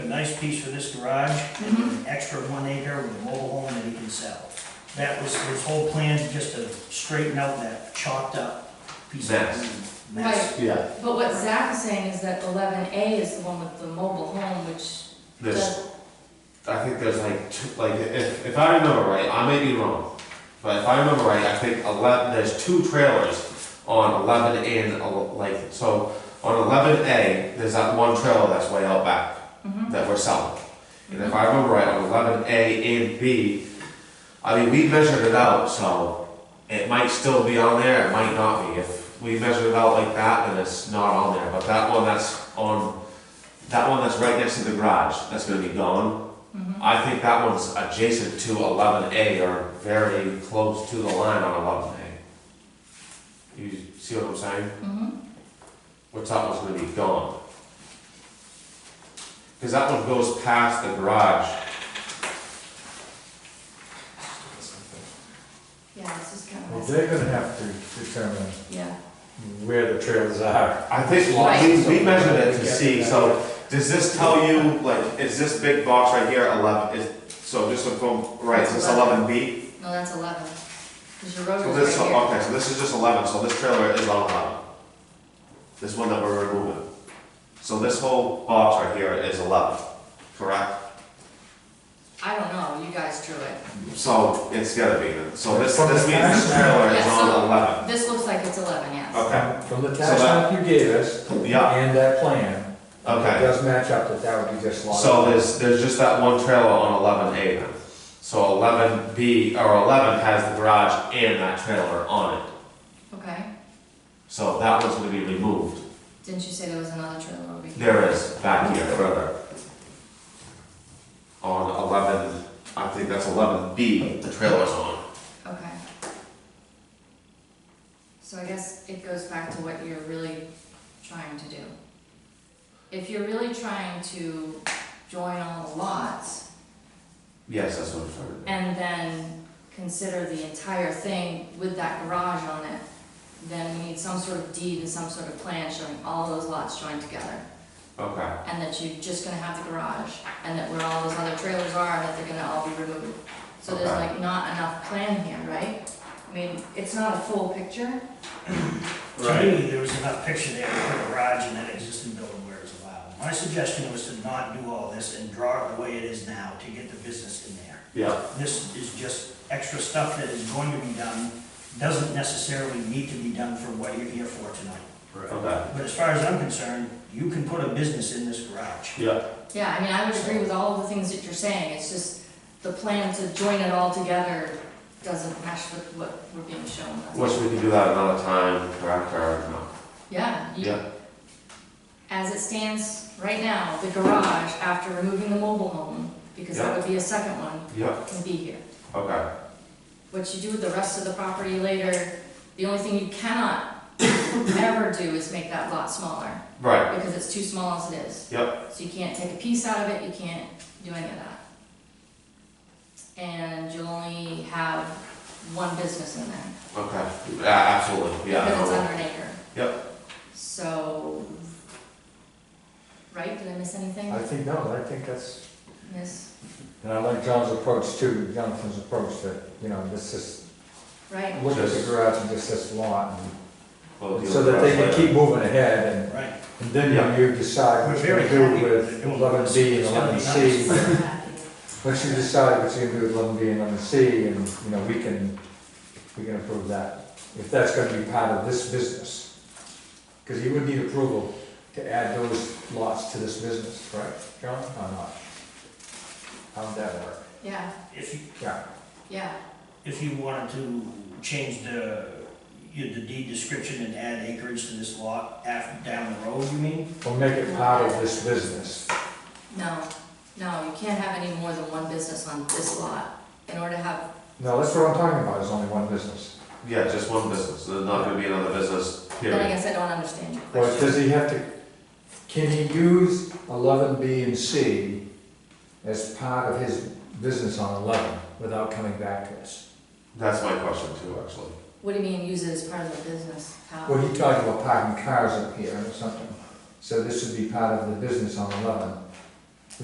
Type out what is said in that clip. nice piece for this garage, and an extra one acre with a mobile home that he can sell. That was his whole plan, just to straighten out that chopped up piece of Mess. land. mess. Yeah, But what Zach is saying is that eleven A is the one with the mobile home, which There's, does, I think there's like, two, like if, if I remember right, I may be wrong, but if I remember right, I think eleven, there's two trailers on eleven A and el- like, so on eleven A, there's that one trailer that's way out back that we're selling. And if I remember right, on eleven A and B, I mean, we measured it out, so it might still be on there, it might not be. If we measured it out like that, then it's not on there, but that one that's on That one that's right next to the garage, that's gonna be gone. I think that one's adjacent to eleven A or very close to the line on eleven A. You see what I'm saying? Mhm. Which that one's gonna be gone. Cause that one goes past the garage. yeah, this is kind of. well, messy. they're gonna have to determine Yeah, where the trails are. I think, Right. we, we measured it to see, so does this tell you, like, is this big box right here eleven, is, so just a phone, right, is this eleven B? no, that's eleven, because your road So is this, right here. okay, so this is just eleven, so this trailer is on eleven. This one that we're removing. So this whole box right here is eleven, correct? I don't know, you guys drew it. So it's gotta be, then. so this, From the this means this trailer is Yeah, so- on eleven. This looks like it's eleven, yes. Okay, From the So tax that- map you gave us yeah, and that plan, it okay. does match up that that would be just lot. So there's, there's just that one trailer on eleven A then. So eleven B, or eleven has the garage and that trailer on it. Okay, So that one's gonna be removed. didn't you say there was another trailer over here? There is, back here further. On eleven, I think that's eleven B, the trailer's on. Okay. So I guess it goes back to what you're really trying to do. If you're really trying to join all the lots, Yes, that's what I'm trying to do. and then consider the entire thing with that garage on it, then we need some sort of deed and some sort of plan showing all those lots joined together, Okay, and that you're just gonna have the garage, and that where all those other trailers are, and that they're gonna all be removed. So there's Okay. like not enough plan here, right? I mean, it's not a full picture, To me, there was enough picture there to put a garage in that existing building where it's allowed. My suggestion was to not do all this and draw it the way it is now to get the business in there. yeah, This is just extra stuff that is going to be done, doesn't necessarily need to be done for what you're here for tonight. okay, But as far as I'm concerned, you can put a business in this garage. yeah, yeah, I mean, I would agree with all of the things that you're saying, it's just the plan to join it all together doesn't match with what we're being shown. That's- wish we could do that another time, correct, or no? Yeah, you, Yeah, As it stands right now, the garage, after removing the mobile home, because that would be a second one, yeah, can be here. okay, What you do with the rest of the property later, the only thing you cannot ever do is make that lot smaller, right, because it's too small as it is. yep, So you can't take a piece out of it, you can't do any of that. And you'll only have one business in there, okay, yeah, absolutely, yeah. because it's no, under an acre. Yep, So, right, did I miss anything? I think, no, I think that's, Miss, and I like John's approach too, Jonathan's approach that, you know, this is, right? look at the Just- garage and just this lot. and- we'll deal So with that they rest can keep later. moving ahead and Right. And then Yeah. you decide what you're We're very gonna do happy with with doing eleven B and this. It's gonna eleven be C. Happy. Once you decide what you're gonna do with eleven B and eleven C, and, you know, we can, we can approve that, if that's gonna be part of this business. Because you would need approval to add those lots to this business, right, John, or not? How would that work? Yeah, If you, Yeah, yeah, if you wanted to change the, you- the deed description and add acreage to this lot after, down the road, you mean? or make it part of this business, no, no, you can't have any more than one business on this lot. In order to have, no, that's what I'm talking about, is only one business. Yeah, just one business, there's not gonna be another business, then I period. guess I don't understand your Or does question. he have to, can he use eleven B and C as part of his business on eleven without coming back to us? That's my question too, actually. What do you mean use it as part of the business? How? Well, he talked about parking cars up here or something, so this would be part of the business on eleven.